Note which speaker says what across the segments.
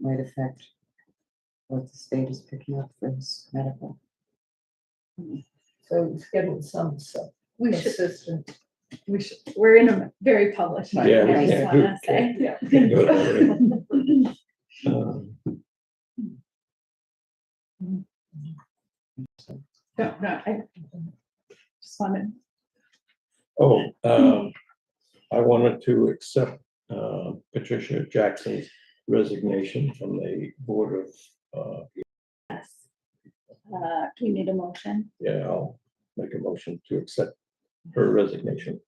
Speaker 1: might affect what the state is picking up for his medical.
Speaker 2: So it's getting some stuff
Speaker 3: We should,
Speaker 2: consistent.
Speaker 3: we should, we're in a very public
Speaker 4: Yeah,
Speaker 3: market, I
Speaker 1: we
Speaker 3: just
Speaker 4: can't-
Speaker 3: wanna
Speaker 4: who
Speaker 3: say.
Speaker 2: Yeah.
Speaker 4: Can't go to it. Um,
Speaker 3: No, no, I just wanted,
Speaker 4: Oh, um, I wanted to accept uh, Patricia Jackson's resignation from the Board of, uh,
Speaker 3: yes. Uh, do we need a motion?
Speaker 4: yeah, I'll make a motion to accept her resignation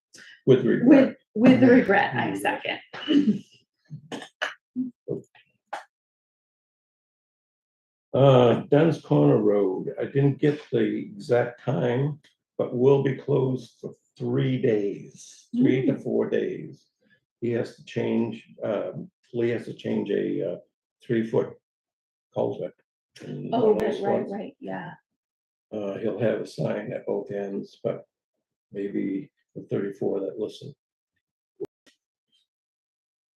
Speaker 4: with regret.
Speaker 3: With, with
Speaker 4: Mm-hmm.
Speaker 3: the regret, I second.
Speaker 4: Uh, Dunn's Corner Road, I didn't get the exact time, but will be closed for three days, three
Speaker 3: Mm.
Speaker 4: to four days. He has to change, um, Lee has to change a, uh, three-foot culvert. in
Speaker 3: Oh,
Speaker 4: one of
Speaker 3: right,
Speaker 4: those
Speaker 3: right,
Speaker 4: ones.
Speaker 3: right, yeah.
Speaker 4: Uh, he'll have a sign at both ends, but maybe the thirty-four that listen.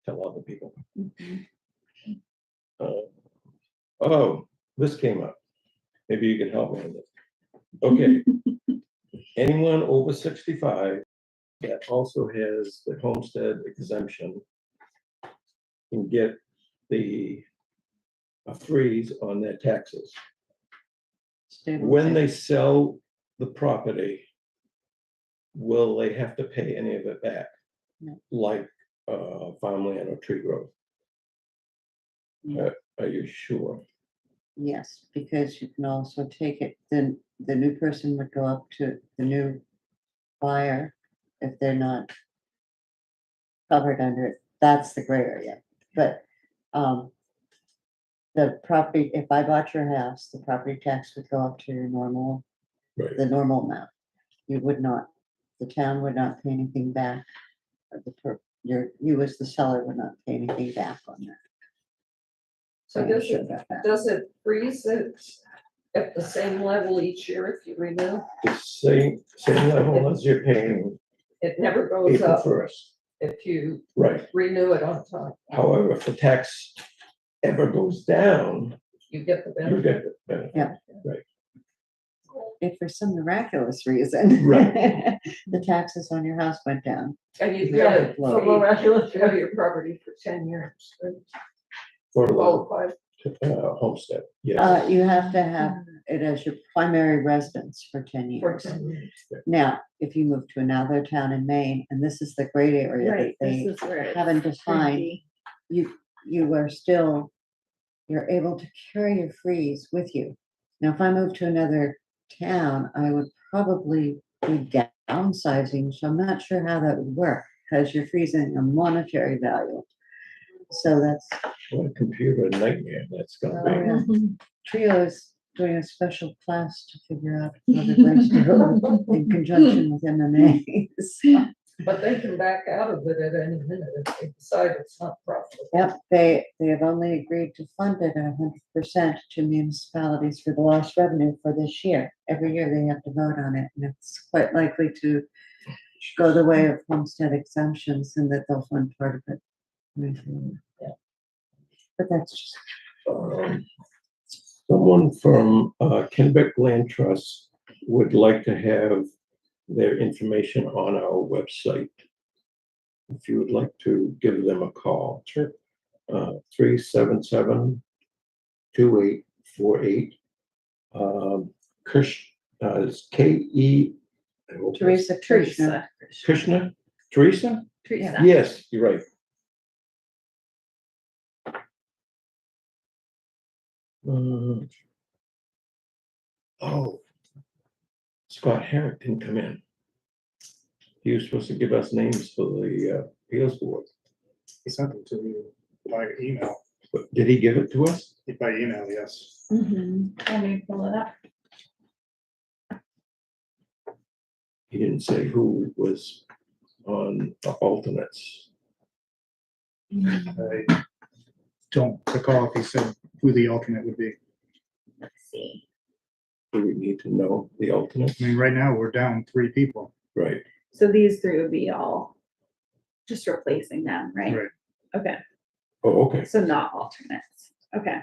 Speaker 4: Tell other people.
Speaker 3: Mhm.
Speaker 4: Uh, Oh, this came up. Maybe you can help me with this. Okay. Anyone over sixty-five that also has the homestead exemption can get the a freeze on their taxes. When they sell the property, will they have to pay any of it back?
Speaker 1: No.
Speaker 4: Like, uh, farmland or tree growth?
Speaker 1: No.
Speaker 4: Uh, Are you sure?
Speaker 1: Yes, because you can also take it, then the new person would go up to the new buyer if they're not covered under it. That's the gray area, but, um, the property, if I bought your house, the property tax would go up to your normal,
Speaker 4: Right.
Speaker 1: the normal amount. You would not, the town would not pay anything back. or The, per- your, you as the seller would not pay anything back on that.
Speaker 2: So
Speaker 1: I'm not
Speaker 2: does
Speaker 1: sure
Speaker 2: it,
Speaker 1: about that.
Speaker 2: does it freeze it at the same level each year if you renew?
Speaker 4: The same, same level as you're paying
Speaker 2: It never goes
Speaker 4: April
Speaker 2: up
Speaker 4: first,
Speaker 2: if you
Speaker 4: right?
Speaker 2: renew it on time.
Speaker 4: However, if the tax ever goes down,
Speaker 2: You get the
Speaker 4: you
Speaker 2: benefit.
Speaker 4: get the benefit.
Speaker 1: if for some miraculous reason.
Speaker 4: Right.
Speaker 1: The taxes on your house went down.
Speaker 2: And you
Speaker 1: You
Speaker 2: get
Speaker 1: get
Speaker 2: it
Speaker 1: it
Speaker 2: for
Speaker 1: blown.
Speaker 2: miraculous, you have your property for ten years. so
Speaker 4: for
Speaker 2: you
Speaker 4: the
Speaker 2: qualify.
Speaker 4: uh, homestead,
Speaker 1: Uh,
Speaker 4: yes.
Speaker 1: you have to have it as your primary residence for ten
Speaker 2: For
Speaker 1: years.
Speaker 2: 10 years.
Speaker 1: Now, if you move to another town in Maine, and this is the great area that
Speaker 3: Right, this
Speaker 1: they,
Speaker 3: is where it's
Speaker 1: haven't defined
Speaker 3: tricky.
Speaker 1: you, you are still, you're able to carry your freeze with you. Now, if I moved to another town, I would probably be downsizing, so I'm not sure how that would work, because you're freezing a monetary value. So that's
Speaker 4: What a computer nightmare that's gonna
Speaker 1: yeah.
Speaker 3: Mm-hmm.
Speaker 1: Trio is doing a special class to figure out other ways to go in conjunction with MMA. So,
Speaker 2: But they can back out of it at any minute if they decide it's not profitable.
Speaker 1: Yep, they, they have only agreed to fund it at hundred percent to municipalities for the lost revenue for this year. Every year they have to vote on it, and it's quite likely to go the way of homestead exemptions and that they'll fund part of it. moving forward.
Speaker 2: Yeah.
Speaker 1: But that's just
Speaker 4: be. Um, Someone from uh, Kennebec Land Trust would like to have their information on our website. If you would like to give them a call. Sure. Three seven seven two eight four eight. Krish, uh, it's K E. I hope it's-
Speaker 1: Teresa Krishna.
Speaker 3: Teresa,
Speaker 4: Krishna, Teresa?
Speaker 3: Teresa.
Speaker 4: Yes, you're right. Uh, Oh. Scott Herrick didn't come in. He was supposed to give us names for the uh, appeals board,
Speaker 5: He sent it to me by email,
Speaker 4: but did he give it to us?
Speaker 5: by email, yes.
Speaker 3: Mhm. Let me pull it up.
Speaker 4: He didn't say who was on the alternates.
Speaker 3: Mm-hmm.
Speaker 5: I don't recall if he said who the alternate would be.
Speaker 3: Let's see.
Speaker 4: Do we need to know the alternates?
Speaker 5: I mean, right now, we're down three people.
Speaker 4: Right,
Speaker 3: So these three would be all just replacing them, right?
Speaker 5: Right.
Speaker 3: Okay,
Speaker 4: oh, okay,
Speaker 3: so not alternates. Okay.